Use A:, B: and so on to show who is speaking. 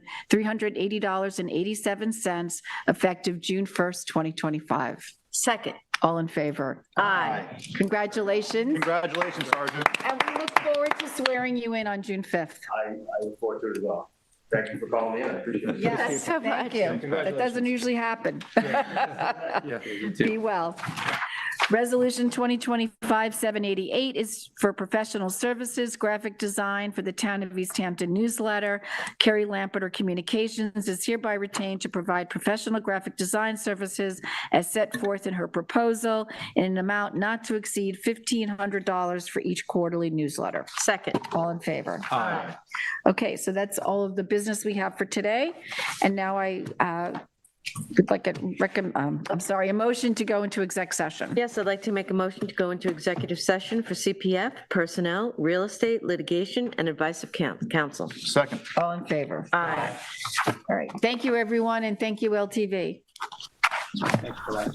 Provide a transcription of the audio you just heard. A: $380.87 effective June 1st, 2025.
B: Second.
A: All in favor?
B: Aye.
A: Congratulations,
C: Congratulations, Sergeant.
A: and we look forward to swearing you in on June 5th.
D: I, I look forward to it as well. Thank you for calling me in. I appreciate it.
A: Yes,
B: so
A: thank
B: much.
A: you. That doesn't usually happen. Be well. Resolution 2025-788 is for professional services, graphic design for the Town of East Hampton newsletter. Carrie Lampeter Communications is hereby retained to provide professional graphic design services as set forth in her proposal in an amount not to exceed $1,500 for each quarterly newsletter.
B: Second.
A: All in favor? Okay, so that's all of the business we have for today. And now I uh, would like to recommend, I'm sorry, a motion to go into exec session.
B: Yes, I'd like to make a motion to go into executive session for CPF, personnel, real estate, litigation, and advice of coun- counsel.
C: Second.
A: All in favor?
B: Aye.
A: All right. Thank you, everyone, and thank you, LTV.